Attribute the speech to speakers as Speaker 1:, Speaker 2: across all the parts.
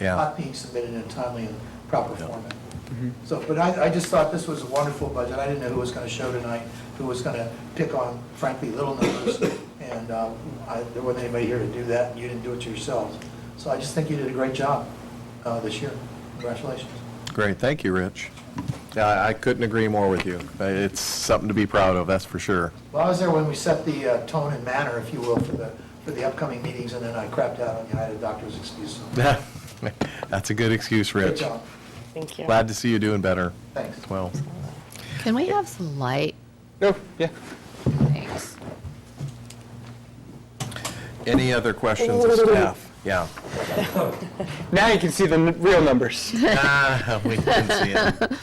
Speaker 1: Yeah.
Speaker 2: not being submitted in a timely and proper format. So, but I, I just thought this was a wonderful budget. I didn't know who was going to show tonight, who was going to pick on frankly little numbers. And um, I, there wasn't anybody here to do that, and you didn't do it yourselves. So I just think you did a great job uh, this year. Congratulations.
Speaker 1: Great, thank you, Rich. Yeah, I I couldn't agree more with you. Uh, It's something to be proud of, that's for sure.
Speaker 2: Well, I was there when we set the uh, tone and manner, if you will, for the, for the upcoming meetings, and then I crapped out on you. I had a doctor's excuse. so-
Speaker 1: That's a good excuse,
Speaker 2: Good
Speaker 1: Rich.
Speaker 2: job.
Speaker 3: Thank you.
Speaker 1: Glad to see you doing better.
Speaker 2: Thanks.
Speaker 1: Well,
Speaker 4: Can we have some light?
Speaker 5: No, yeah.
Speaker 4: Thanks.
Speaker 1: any other questions of staff? Yeah.
Speaker 5: Now you can see the n- real numbers.
Speaker 1: Ah, we can see it.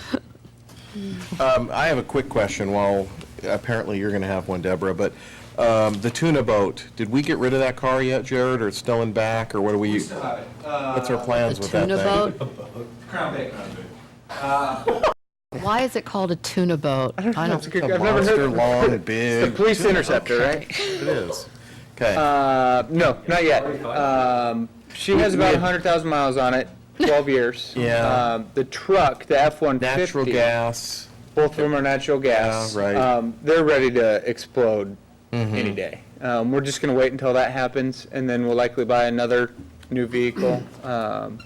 Speaker 1: Um, I have a quick question, while apparently you're going to have one, Deborah, but um, the tuna boat, did we get rid of that car yet, Jared, or it's still in back, or what do we? What's
Speaker 2: Uh,
Speaker 1: our
Speaker 4: The
Speaker 1: plans with that
Speaker 4: tuna
Speaker 1: thing?
Speaker 4: boat? Why is it called a tuna boat? I
Speaker 5: That's a
Speaker 4: don't,
Speaker 5: good-
Speaker 1: A
Speaker 5: I've never
Speaker 1: monster
Speaker 5: heard.
Speaker 1: long,
Speaker 5: The
Speaker 1: big.
Speaker 5: police interceptor, right?
Speaker 1: It is. Okay.
Speaker 5: Uh, no, not yet. Um, she has about 100,000 miles on it, 12 years.
Speaker 1: Yeah.
Speaker 5: Um, the truck, the F-150.
Speaker 1: Natural gas.
Speaker 5: Both of them are natural gas.
Speaker 1: Yeah, right. Mm-hmm.
Speaker 5: Um, they're ready to explode any day. Um, we're just gonna wait until that happens, and then we'll likely buy another new vehicle. Um,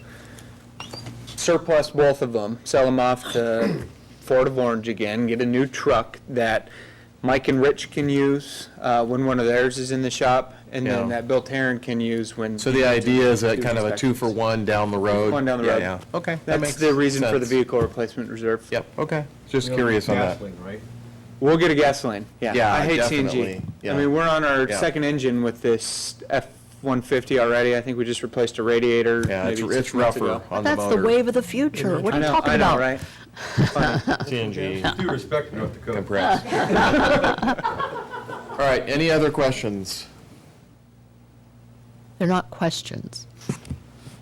Speaker 5: surplus both of them, sell them off to Ford of Orange again, get a new truck that Mike and Rich can use, uh, when one of theirs is in the shop, and then
Speaker 1: Yeah.
Speaker 5: that Bill Tarrin can use when.
Speaker 1: So
Speaker 5: he
Speaker 1: the
Speaker 5: needs it.
Speaker 1: idea is that
Speaker 5: Do
Speaker 1: kind of a
Speaker 5: inspections.
Speaker 1: two-for-one down the road?
Speaker 5: One down the
Speaker 1: Yeah,
Speaker 5: road.
Speaker 1: yeah. Okay. that
Speaker 5: That's
Speaker 1: makes
Speaker 5: the reason for the
Speaker 1: sense.
Speaker 5: vehicle replacement reserve.
Speaker 1: Yep, okay. Just curious on that.
Speaker 5: We'll get a gasoline, yeah.
Speaker 1: Yeah,
Speaker 5: I hate
Speaker 1: definitely,
Speaker 5: CNG.
Speaker 1: yeah.
Speaker 5: I mean, we're on our
Speaker 1: Yeah.
Speaker 5: second engine with this F-150 already. I think we just replaced a radiator
Speaker 1: Yeah, it's
Speaker 5: maybe
Speaker 1: it's
Speaker 5: six months
Speaker 1: rougher
Speaker 5: ago.
Speaker 1: on the
Speaker 4: that's the
Speaker 1: motor.
Speaker 4: wave of the future. What
Speaker 5: I
Speaker 4: are you
Speaker 5: know,
Speaker 4: talking
Speaker 5: I know,
Speaker 4: about?
Speaker 5: right?
Speaker 1: CNG
Speaker 6: Due respect to North Dakota.
Speaker 1: compressed. All right, any other questions?
Speaker 4: They're not questions.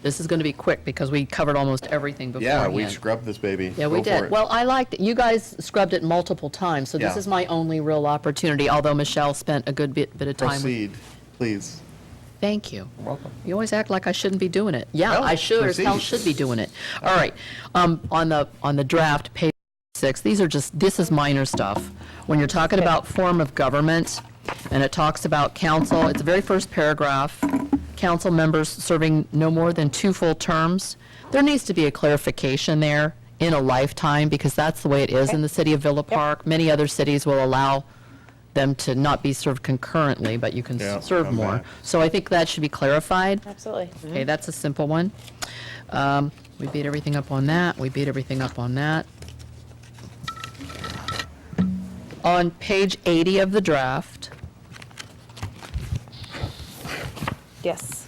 Speaker 4: This is going to be quick because we covered almost everything
Speaker 1: Yeah, we
Speaker 4: beforehand.
Speaker 1: scrubbed this baby.
Speaker 4: Yeah, we
Speaker 1: Go for
Speaker 4: did.
Speaker 1: it.
Speaker 4: Well, I liked, it. you guys scrubbed it multiple times, so this
Speaker 1: Yeah.
Speaker 4: is my only real opportunity, although Michelle spent a good bit, bit of time. with-
Speaker 1: Proceed, please.
Speaker 4: Thank you.
Speaker 1: Welcome.
Speaker 4: You always act like I shouldn't be doing it. Yeah,
Speaker 1: No,
Speaker 4: I should, or Sal
Speaker 1: proceed.
Speaker 4: should be doing it. All right, um, on the, on the draft, page six, these are just, this is minor stuff. When you're talking about form of government, and it talks about council, it's the very first paragraph, council members serving no more than two full terms, there needs to be a clarification there in a lifetime, because that's the way it is in the city of Villa Park. Many other cities will allow them to not be served concurrently, but you can
Speaker 1: Yeah,
Speaker 4: s- serve
Speaker 1: I'm
Speaker 4: more.
Speaker 1: back.
Speaker 4: So I think that should be clarified.
Speaker 3: Absolutely.
Speaker 4: Okay, that's a simple one. Um, We beat everything up on that, we beat everything up on that. On page 80 of the draft,
Speaker 3: Yes.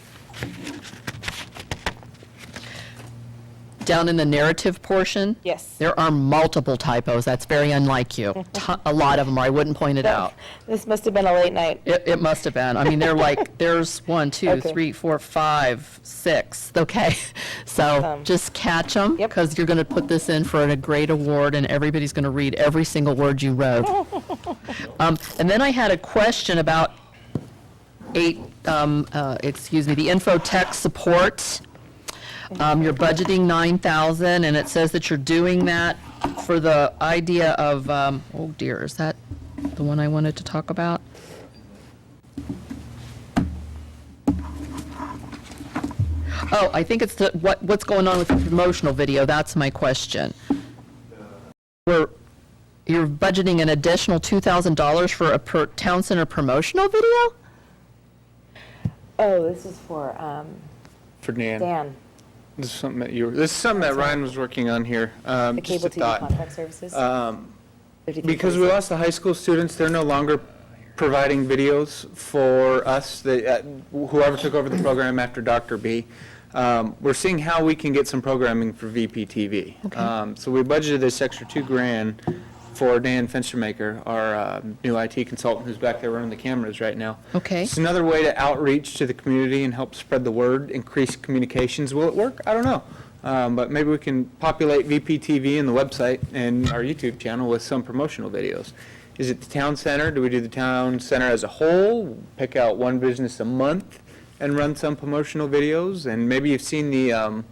Speaker 4: down in the narrative portion.
Speaker 3: Yes.
Speaker 4: There are multiple typos, that's very unlike you. To- A lot of them, or I wouldn't point it out.
Speaker 3: This must have been a late night.
Speaker 4: It, it must have been. I mean, they're like, there's one, two,
Speaker 3: Okay.
Speaker 4: three, four, five, six. Okay, so
Speaker 3: Awesome.
Speaker 4: just catch them.
Speaker 3: Yep.
Speaker 4: Because you're going to put this in for a great award and everybody's going to read every single word you wrote. Um, And then I had a question about eight, um, uh, excuse me, the info tech support. Um, You're budgeting 9,000 and it says that you're doing that for the idea of, um, oh dear, is that the one I wanted to talk about? Oh, I think it's the, what, what's going on with the promotional video, that's my question. We're, you're budgeting an additional $2,000 for a per, town center promotional video?
Speaker 3: Oh, this is for um,
Speaker 5: For Dan.
Speaker 3: Dan,
Speaker 5: This is something that you, were- this is something that Ryan was working on here. um,
Speaker 3: the
Speaker 5: just
Speaker 3: cable
Speaker 5: a
Speaker 3: TV
Speaker 5: thought. Um,
Speaker 3: contract services.
Speaker 5: Because we lost the high school students, they're no longer providing videos for us, They, uh, whoever took over the program after Dr. B. Um, We're seeing how we can get some programming for VPTV. Um, So we budgeted this extra two grand for Dan Finstermaker, our uh, new IT consultant who's back there running the cameras right now.
Speaker 4: Okay.
Speaker 5: It's another way to outreach to the community and help spread the word, increase communications. Will it work? I don't know. Um, But maybe we can populate VPTV and the website and our YouTube channel with some promotional videos. Is it the town center? Do we do the town center as a whole? Pick out one business a month and run some promotional videos? And maybe you've seen the, um,